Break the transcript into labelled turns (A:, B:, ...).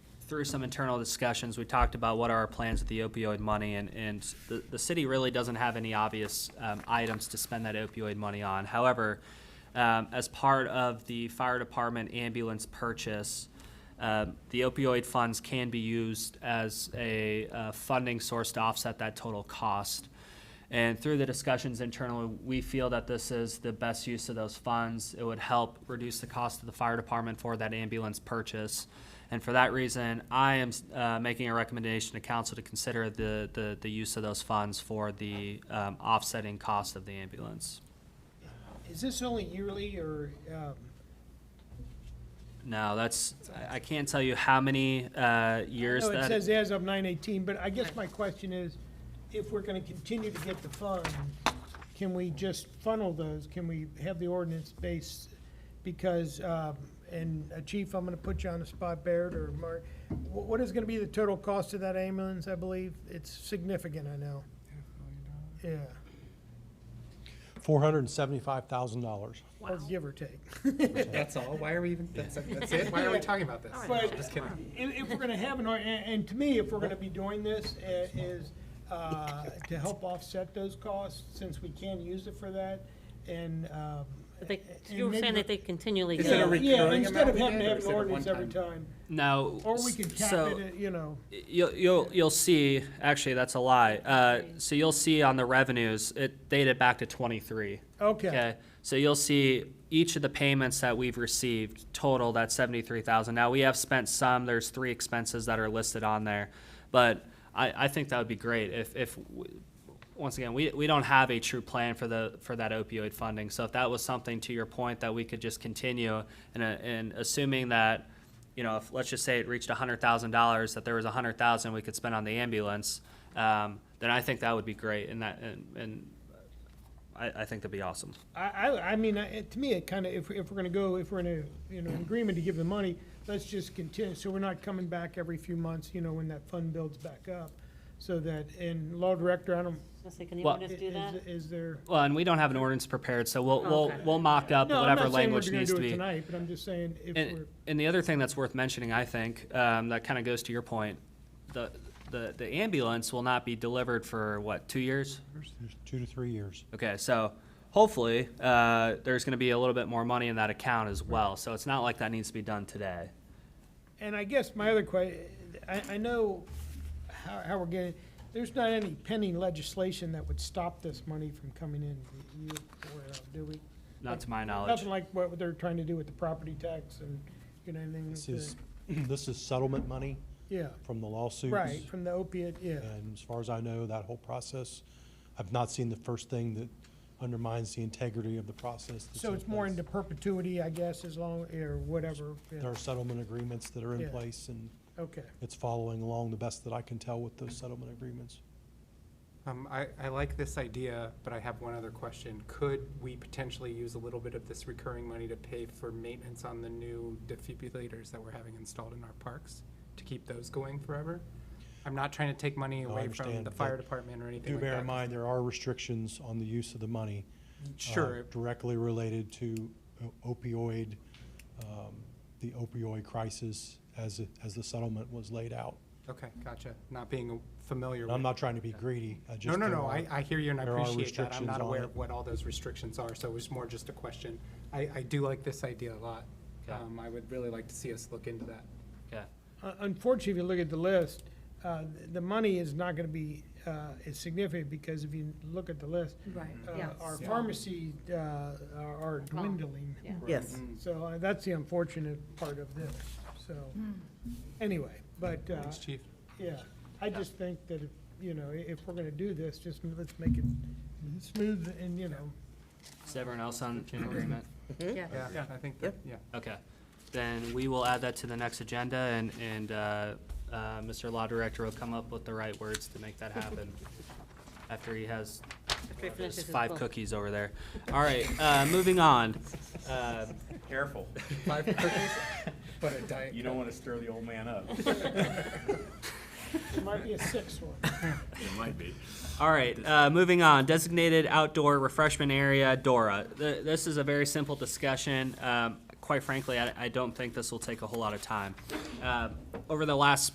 A: through some internal discussions, we talked about what are our plans with the opioid money, and, and the, the city really doesn't have any obvious, um, items to spend that opioid money on. However, um, as part of the fire department ambulance purchase, um, the opioid funds can be used as a, uh, funding source to offset that total cost. And through the discussions internally, we feel that this is the best use of those funds. It would help reduce the cost of the fire department for that ambulance purchase. And for that reason, I am uh, making a recommendation to council to consider the, the, the use of those funds for the um, offsetting cost of the ambulance.
B: Is this only yearly or, um,
A: Now, that's, I I can't tell you how many uh, years
B: no,
A: that,
B: it says as of nine eighteen, but I guess my question is, if we're gonna continue to get the funds, can we just funnel those? Can we have the ordinance based? Because, um, and uh, Chief, I'm gonna put you on the spot, Baird or Mark, wh- what is gonna be the total cost of that ambulance, I believe? It's significant, I know. Yeah,
C: Four hundred and seventy-five thousand dollars.
B: or give or take.
D: That's all. Why are we even? That's, that's it. Why are we talking about this?
B: But
D: Just kidding.
B: if, if we're gonna have an, or- and, and to me, if we're gonna be doing this, i- is, uh, to help offset those costs, since we can use it for that, and, um.
E: But they,
B: and
E: you were
B: maybe-
E: saying that they continually
D: Is
E: get
D: it a
E: it.
D: re- recurring
B: Yeah, instead of
D: amount we
B: having to have
D: did, or is
B: an
D: it a
B: ordinance every
D: one-time?
B: time,
A: now.
B: or we could cap
A: so-
B: it, at, you know,
A: You'll, you'll, you'll see, actually, that's a lie. Uh, so you'll see on the revenues, it dated back to twenty-three.
B: okay.
A: Okay, so you'll see each of the payments that we've received total, that's seventy-three thousand. Now, we have spent some, there's three expenses that are listed on there. But I, I think that would be great if, if, w- once again, we, we don't have a true plan for the, for that opioid funding. So if that was something, to your point, that we could just continue and, uh, and assuming that, you know, if, let's just say it reached a hundred thousand dollars, that there was a hundred thousand we could spend on the ambulance, um, then I think that would be great and that, and, and I, I think that'd be awesome.
B: I, I, I mean, I- it- to me, it kinda, if, if we're gonna go, if we're in a, you know, agreement to give the money, let's just continue, so we're not coming back every few months, you know, when that fund builds back up. So that, and Law Director, I don't,
E: Say, Can you
A: Well-
E: let us
B: i-
E: do that?
B: is, is there?
A: Well, and we don't have an ordinance prepared, so we'll, we'll,
E: Okay.
A: we'll mock up
B: No, I'm
A: whatever
B: not saying we're
A: language
B: gonna
A: needs
B: do
A: to
B: it
A: be.
B: Tonight, but I'm just saying if
A: And,
B: we're,
A: and the other thing that's worth mentioning, I think, um, that kind of goes to your point, the, the, the ambulance will not be delivered for, what, two years?
C: Two to three years.
A: Okay, so hopefully, uh, there's gonna be a little bit more money in that account as well, so it's not like that needs to be done today.
B: and I guess my other question, I, I know how, how we're getting, there's not any pending legislation that would stop this money from coming in. Do you- or, uh, Do we?
A: Not to my knowledge.
B: Nothing like what they're trying to do with the property tax and, you know, anything.
C: This
B: with
C: is,
B: the-
C: this is settlement money
B: Yeah,
C: from the lawsuits.
B: right, from the opiate, yeah.
C: And as far as I know, that whole process, I've not seen the first thing that undermines the integrity of the process. that's
B: So
C: in
B: it's more
C: place.
B: into perpetuity, I guess, as long, or whatever, yeah,
C: There are settlement agreements that are in
B: Yeah.
C: place, and
B: okay.
C: it's following along the best that I can tell with those settlement agreements.
D: Um, I, I like this idea, but I have one other question. Could we potentially use a little bit of this recurring money to pay for maintenance on the new defibrillators that we're having installed in our parks to keep those going forever? I'm not trying to take money
C: No, I
D: away from
C: understand,
D: the fire
C: but
D: department or anything
C: Do
D: like
C: bear in
D: that.
C: mind, there are restrictions on the use of the money. uh,
D: Sure,
C: Directly related to uh, opioid, um, the opioid crisis as, it- as the settlement was laid out.
D: okay, gotcha. Not being familiar
C: And
D: with.
C: uh, I'm not trying to be greedy, I just.
D: No, no,
C: there
D: no,
C: are-
D: I, I hear you and I
C: there are
D: appreciate that. I'm
C: restrictions
D: not
C: on
D: aware
C: it.
D: of what all those restrictions are, so it was more just a question. I, I do like this idea a lot.
A: Okay.
D: Um, I would really like to see us look into that.
A: Okay.
B: Un- Uh, Unfortunately, if you look at the list, uh, the money is not going to be uh, as significant because if you look at the list,
F: Right,
B: uh,
F: yeah.
B: our
D: Yeah.
B: pharmacy uh, are are dwindling.
F: Yeah.
G: Yes.
D: Mm.
B: So uh, that's the unfortunate part of this, so,
F: Hmm.
B: anyway, but, uh,
D: Thanks, chief.
B: yeah, I just think that, if, you know, i- if we're going to do this, just let's make it smooth and, you know,
A: Is everyone else on, in agreement?
F: yeah.
D: Yeah, I think that, yeah.
A: Okay, then we will add that to the next agenda and, and, uh, uh, Mr. Law Director will come up with the right words to make that happen after he has
E: After he finishes
A: his
E: his
A: five
E: book.
A: cookies over there. All right, uh, moving on. Uh,
H: Careful,
D: Five cookies, but a diet.
H: you don't want to stir the old man up.
B: there might be a sixth one.
H: It might be.
A: All right, uh, moving on. Designated outdoor refreshment area, DORA. Th- This is a very simple discussion. Um, quite frankly, I, I don't think this will take a whole lot of time. Uh, over the last